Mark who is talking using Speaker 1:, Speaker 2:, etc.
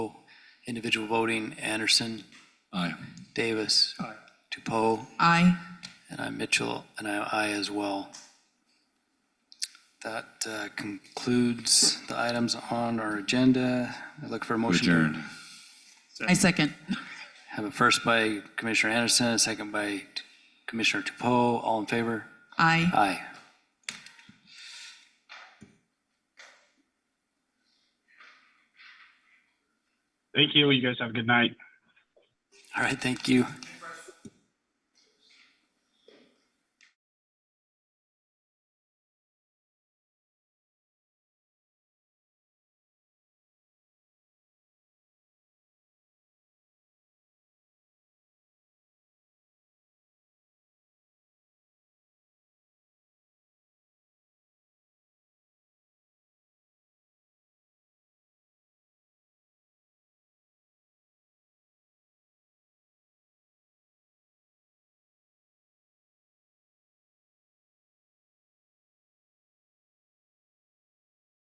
Speaker 1: Individual voting, Anderson,
Speaker 2: Aye.
Speaker 1: Davis. Aye. Dupont,
Speaker 3: Aye.
Speaker 1: and I'm Mitchell, and I'm I as well. That uh, concludes the items on our agenda. I look for a motion. to
Speaker 2: Adjourned.
Speaker 3: I second.
Speaker 1: Have a first by Commissioner Anderson, a second by Commissioner Dupont. All in favor?
Speaker 3: Aye.
Speaker 1: Aye.
Speaker 4: Thank you. You guys have a good night.
Speaker 1: All right, thank you.